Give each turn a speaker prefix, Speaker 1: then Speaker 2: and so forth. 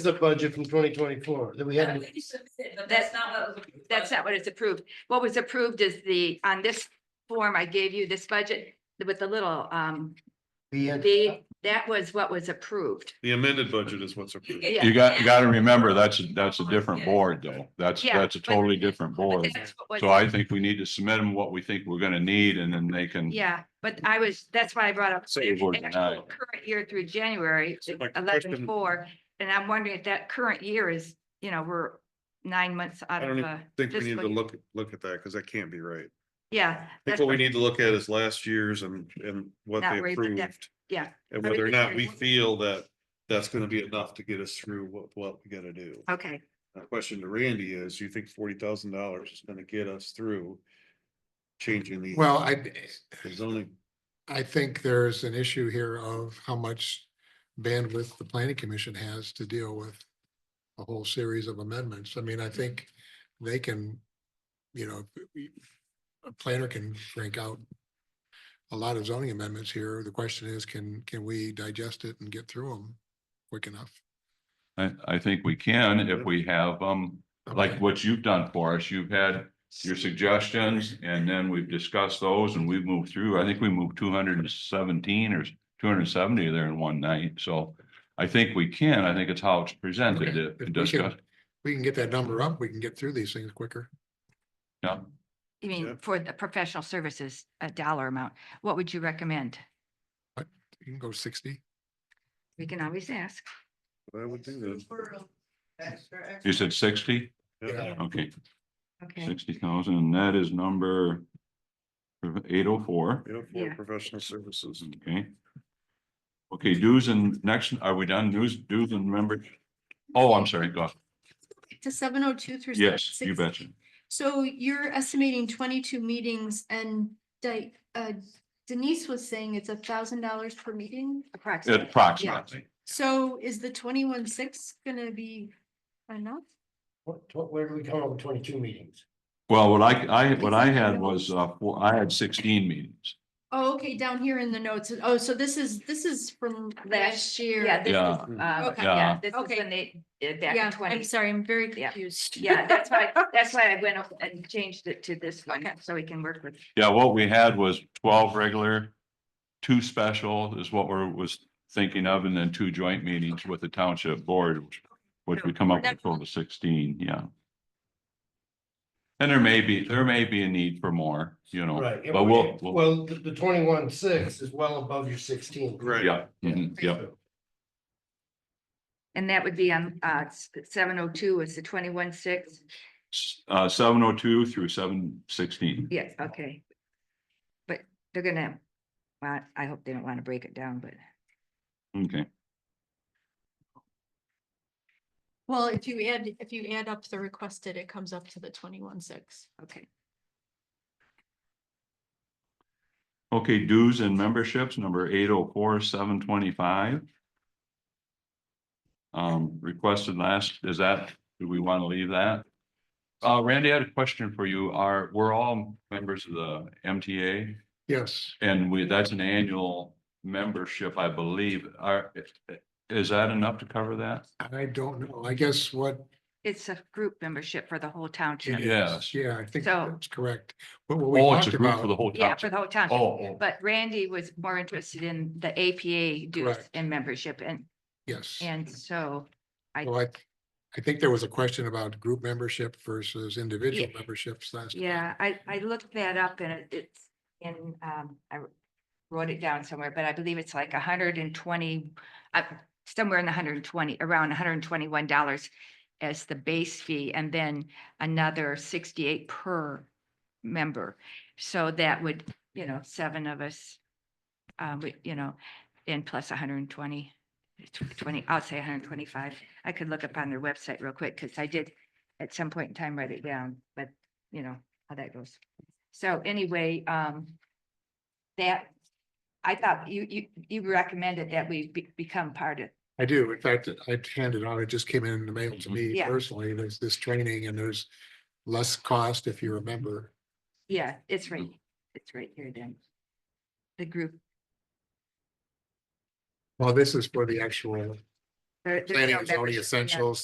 Speaker 1: is a budget from twenty twenty-four that we had.
Speaker 2: But that's not what was. approved.
Speaker 3: That's not what is approved. What was approved is the, on this form I gave you, this budget with the little, um, the, that was what was approved.
Speaker 4: The amended budget is what's approved.
Speaker 2: Yeah.
Speaker 5: You got, you gotta remember, that's, a that's a different
Speaker 2: Yeah.
Speaker 5: board though. That's,
Speaker 3: Yeah,
Speaker 5: that's a
Speaker 3: but-
Speaker 5: totally different
Speaker 3: But
Speaker 5: board.
Speaker 3: that's what was-
Speaker 5: So I think we need to submit them what we think we're gonna need and then they can,
Speaker 3: Yeah, but I was, that's why I brought up.
Speaker 5: Say it word
Speaker 3: actual
Speaker 5: denied.
Speaker 3: Current year through January,
Speaker 4: So my
Speaker 3: eleven
Speaker 4: question-
Speaker 3: four, and I'm wondering if that current year is, you know, we're nine months out
Speaker 4: I
Speaker 3: of,
Speaker 4: don't
Speaker 3: uh,
Speaker 4: Think we need to
Speaker 3: fiscal year.
Speaker 4: look, look at that, because that can't be right.
Speaker 3: yeah.
Speaker 4: I think
Speaker 3: that's
Speaker 4: what we
Speaker 3: what-
Speaker 4: need to look at is last year's and, and what
Speaker 3: Not
Speaker 4: they
Speaker 3: worry about that.
Speaker 4: approved.
Speaker 3: Yeah.
Speaker 4: And
Speaker 3: I would
Speaker 4: whether or
Speaker 3: be
Speaker 4: not
Speaker 3: very
Speaker 4: we
Speaker 3: worried.
Speaker 4: feel that that's gonna be enough to get us through what, what we gotta do.
Speaker 3: Okay,
Speaker 4: My question to Randy is, you think forty thousand dollars is gonna get us through changing the
Speaker 6: Well, I,
Speaker 4: the zoning?
Speaker 6: I think there's an issue here of how much bandwidth the planning commission has to deal with a whole series of amendments. I mean, I think they can, you know, we- a planner can crank out a lot of zoning amendments here. The question is, can, can we digest it and get through them quick enough?
Speaker 5: I, I think we can if we have, um, like
Speaker 6: Mm-hmm. Okay.
Speaker 5: what you've done for us. You've had your suggestions and then we've discussed those and we've moved through. I think we moved two hundred and seventeen or two hundred and seventy there in one night. So I think we can. I think it's how it's presented
Speaker 6: Okay.
Speaker 5: to-
Speaker 6: If we
Speaker 5: to
Speaker 6: can-
Speaker 5: discuss.
Speaker 6: We can get that number up, we can get through these things quicker.
Speaker 5: Yeah.
Speaker 3: you
Speaker 4: Yeah.
Speaker 3: mean for the professional services, a dollar amount, what would you recommend?
Speaker 6: You can go sixty.
Speaker 3: We can always ask.
Speaker 4: I would think that.
Speaker 5: You said sixty?
Speaker 4: yeah.
Speaker 5: Okay.
Speaker 3: Okay,
Speaker 5: Sixty thousand, and that is number eight oh four,
Speaker 4: You know, for
Speaker 3: Yeah.
Speaker 4: professional services.
Speaker 5: okay? Okay, dues and next, are we done? Dues, dues and members? Oh, I'm sorry, go,
Speaker 7: to seven oh two through.
Speaker 5: yes,
Speaker 7: 706.
Speaker 5: you betcha.
Speaker 7: So you're estimating twenty-two meetings and Di- uh, Denise was saying it's a thousand dollars per meeting.
Speaker 3: approximately.
Speaker 5: Approximately,
Speaker 7: So is the twenty-one six gonna be enough?
Speaker 1: What, what, where do we come up with twenty-two meetings?
Speaker 5: well, what I, I, what I had was, uh, four, I had sixteen meetings.
Speaker 7: Oh, okay, down here in the notes. Oh, so this is, this is from last year.
Speaker 3: Yeah, this is,
Speaker 5: Yeah.
Speaker 6: Mm.
Speaker 3: uh,
Speaker 7: Okay.
Speaker 3: yeah,
Speaker 5: Yeah.
Speaker 3: this is
Speaker 7: Okay.
Speaker 3: when they did back in
Speaker 7: Yeah, I'm
Speaker 3: twenty.
Speaker 7: sorry, I'm very
Speaker 3: Yeah.
Speaker 7: confused.
Speaker 3: Yeah, that's why, that's why I went up and changed it to this one, so we can work with.
Speaker 5: Yeah, what we had was twelve regular, two special is what we're, was thinking of, and then two joint meetings with the township board, which- which we come up with total of sixteen, yeah. And there may be, there may be a need for more, you know,
Speaker 1: Right.
Speaker 5: but we'll, we'll,
Speaker 1: Well, the, the twenty-one six is well above your sixteen.
Speaker 4: Right.
Speaker 5: yeah, mhm, yeah,
Speaker 3: And that would be on, uh, seven oh two is the twenty-one six,
Speaker 5: S- uh, seven oh two through seven sixteen.
Speaker 3: yes, okay. But they're gonna, well, I hope they don't wanna break it down, but.
Speaker 5: Okay,
Speaker 7: Well, if you add, if you add up the requested, it comes up to the twenty-one six.
Speaker 3: Okay,
Speaker 5: okay, dues and memberships, number eight oh four, seven twenty-five. Um, requested last, is that, do we want to leave that? Uh, Randy, I had a question for you. Are, we're all members of the MTA?
Speaker 6: Yes,
Speaker 5: And we, that's an annual membership, I believe. Are, is that enough to cover that?
Speaker 6: I don't know. I guess what
Speaker 3: it's a group membership for the whole
Speaker 6: It
Speaker 3: township.
Speaker 5: Yeah. Yes.
Speaker 6: is, Yeah, I think
Speaker 3: So-
Speaker 6: that's correct. But what we
Speaker 5: Oh, it's
Speaker 6: talked
Speaker 5: a group for the
Speaker 6: about,
Speaker 5: whole
Speaker 3: Yeah, for
Speaker 5: township.
Speaker 3: the whole
Speaker 5: Oh,
Speaker 3: township,
Speaker 5: oh,
Speaker 3: but Randy was more interested in the APA dues
Speaker 6: Correct.
Speaker 3: and membership, and,
Speaker 6: yes.
Speaker 3: and so. I-
Speaker 6: Well, I, I think there was a question about group membership versus individual
Speaker 3: Yeah.
Speaker 6: memberships last. time.
Speaker 3: Yeah, I, I looked that up and it- it's in, um, I wr- wrote it down somewhere, but I believe it's like hundred and twenty, uh, somewhere in the hundred and twenty, around hundred and twenty-one dollars as the base fee and then another sixty-eight per member. So that would, you know, seven of us, um, we- you know, and plus hundred and twenty, twenty, I'll say hundred and twenty-five. I could look up on their website real quick because I did at some point in time write it down, but you know, how that goes. So anyway, um, that, I thought you, you, you recommended that we be- become part of,
Speaker 6: I do. In fact, I handed on, it just came in the mail to
Speaker 5: Mm-hmm.
Speaker 6: me
Speaker 3: Yeah.
Speaker 6: personally. There's this training and there's less cost if you remember.
Speaker 3: yeah, it's right, it's right here then. The group,
Speaker 6: Well, this is for the actual
Speaker 3: There- there's no
Speaker 6: Planning is
Speaker 3: membership,
Speaker 6: only
Speaker 3: yeah.
Speaker 6: essential,